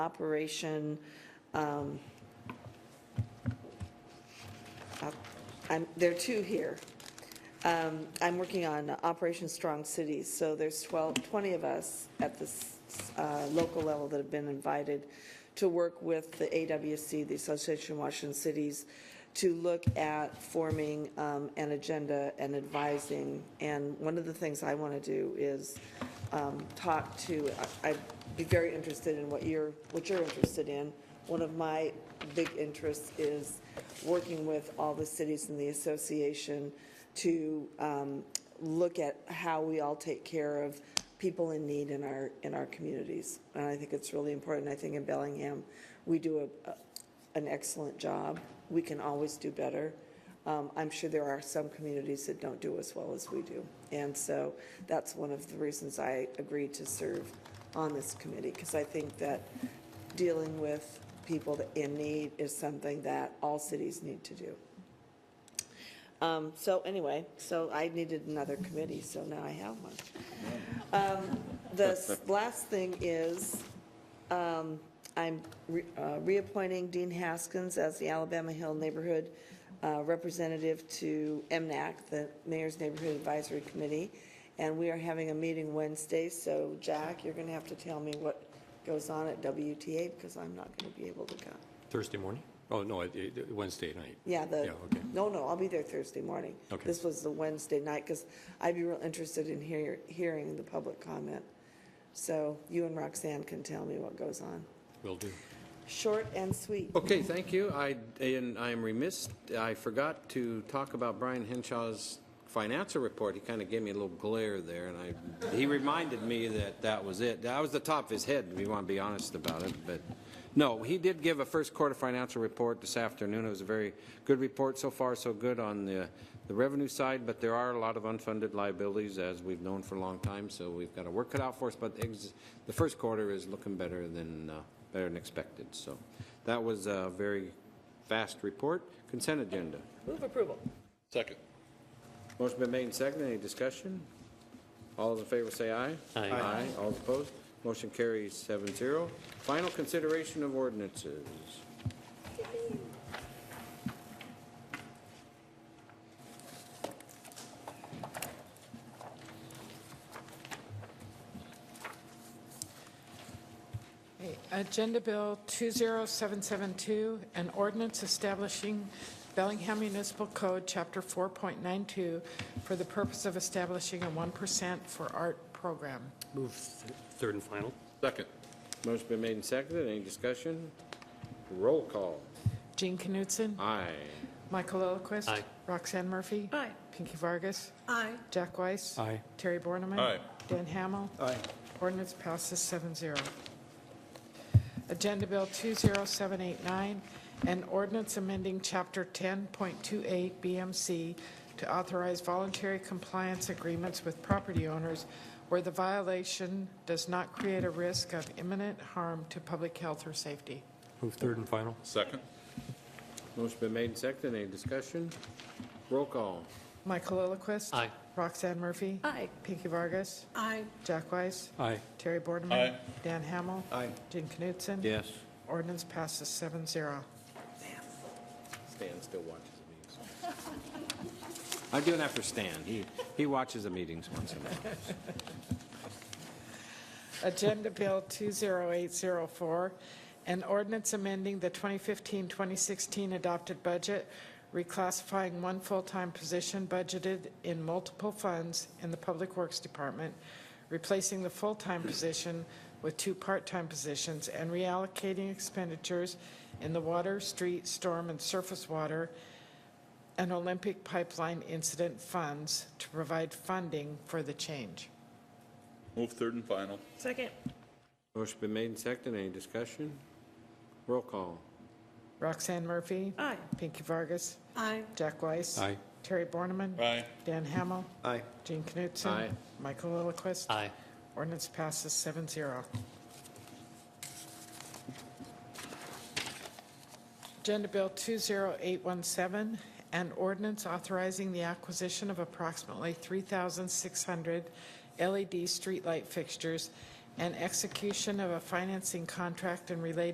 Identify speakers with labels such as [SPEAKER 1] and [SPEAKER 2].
[SPEAKER 1] operation, um, op- I'm, there are two here. Um, I'm working on Operation Strong Cities, so there's 12, 20 of us at this uh, local level that have been invited to work with the AWC, the Association of Washington Cities, to look at forming um, an agenda and advising. And one of the things I want to do is um, talk to, I- I'd be very interested in what you're, what you're interested in. One of my big interests is working with all the cities in the association to um, look at how we all take care of people in need in our, in our communities. And I think it's really important. I think in Bellingham, we do a, a- an excellent job. We can always do better. Um, I'm sure there are some communities that don't do as well as we do. And so that's one of the reasons I agreed to serve on this committee, because I think that dealing with people that- in need is something that all cities need to do. Um, So anyway, so I needed another committee, so now I have one. Um, The s- last thing is, um, I'm re- uh, reappointing Dean Haskins as the Alabama Hill Neighborhood uh, Representative to MNAC, the Mayor's Neighborhood Advisory Committee, and we are having a meeting Wednesday, so Jack, you're going to have to tell me what goes on at WTA, because I'm not going to be able to come.
[SPEAKER 2] Thursday morning? Oh, no, it- it- Wednesday night.
[SPEAKER 1] Yeah, the,
[SPEAKER 2] Yeah, okay.
[SPEAKER 1] no, no, I'll be there Thursday morning.
[SPEAKER 2] Okay.
[SPEAKER 1] This was the Wednesday night, because I'd be real interested in hear, hearing the public comment. So you and Roxanne can tell me what goes on.
[SPEAKER 2] Will do.
[SPEAKER 1] Short and sweet.
[SPEAKER 3] Okay, thank you. I, and I'm remiss, I forgot to talk about Brian Henshaw's financial report. He kind of gave me a little glare there, and I, he reminded me that that was it. That was the top of his head, if you want to be honest about it, but, no, he did give a first quarter financial report this afternoon. It was a very good report so far, so good on the, the revenue side, but there are a lot of unfunded liabilities, as we've known for a long time, so we've got to work it out for us, but ex- the first quarter is looking better than, uh, better than expected. So that was a very fast report. Consent agenda.
[SPEAKER 1] Move approval.
[SPEAKER 4] Second.
[SPEAKER 3] Motion been made and seconded. Any discussion? All those in favor say aye. Aye. Aye. All opposed? Motion carries seven zero. Final consideration of ordinances.
[SPEAKER 5] Agenda Bill 20772, an ordinance establishing Bellingham Municipal Code, Chapter 4.92, for the purpose of establishing a 1% for art program.
[SPEAKER 2] Move th- third and final?
[SPEAKER 4] Second.
[SPEAKER 3] Motion been made and seconded. Any discussion? Roll call.
[SPEAKER 5] Gene Knutson?
[SPEAKER 3] Aye.
[SPEAKER 5] Michael Olaquist?
[SPEAKER 2] Aye.
[SPEAKER 5] Roxanne Murphy?
[SPEAKER 1] Aye.
[SPEAKER 5] Pinky Vargas? Aye. Jack Weiss?
[SPEAKER 2] Aye.
[SPEAKER 5] Terry Borneman?
[SPEAKER 4] Aye.
[SPEAKER 5] Dan Hamel? Aye. Ordinance passes 7-0. Agenda Bill 20789, an ordinance amending Chapter 10.28 BMC to authorize voluntary compliance agreements with property owners where the violation does not create a risk of imminent harm to public health or safety.
[SPEAKER 2] Move third and final?
[SPEAKER 4] Second.
[SPEAKER 3] Motion been made and seconded. Any discussion? Roll call.
[SPEAKER 5] Michael Olaquist?
[SPEAKER 2] Aye.
[SPEAKER 5] Roxanne Murphy? Aye. Pinky Vargas? Aye. Jack Weiss?
[SPEAKER 2] Aye.
[SPEAKER 5] Terry Bordeman?
[SPEAKER 4] Aye.
[SPEAKER 5] Dan Hamel?
[SPEAKER 3] Aye.
[SPEAKER 5] Gene Knutson?
[SPEAKER 3] Yes.
[SPEAKER 5] Ordinance passes seven zero.
[SPEAKER 3] Stan still watches the meetings. I do it after Stan. He, he watches the meetings once in a while.
[SPEAKER 5] Agenda Bill 20804, an ordinance amending the 2015-2016 adopted budget, reclassifying one full-time position budgeted in multiple funds in the Public Works Department, replacing the full-time position with two part-time positions, and reallocating expenditures in the water, street, storm, and surface water and Olympic pipeline incident funds to provide funding for the change.
[SPEAKER 4] Move third and final.
[SPEAKER 3] Motion been made and seconded. Any discussion? Roll call.
[SPEAKER 5] Roxanne Murphy.
[SPEAKER 1] Aye.
[SPEAKER 5] Pinky Vargas.
[SPEAKER 1] Aye.
[SPEAKER 5] Jack Weiss.
[SPEAKER 2] Aye.
[SPEAKER 5] Terry Borneman.
[SPEAKER 4] Aye.
[SPEAKER 5] Dan Hamel.
[SPEAKER 3] Aye.
[SPEAKER 5] Gene Knutson.
[SPEAKER 3] Aye.
[SPEAKER 5] Michael Lillquist.
[SPEAKER 2] Aye.
[SPEAKER 5] Ordinance passes seven zero. Agenda Bill 20817, an ordinance authorizing the acquisition of approximately 3,600 LED streetlight E fixtures and execution of a financing contract and related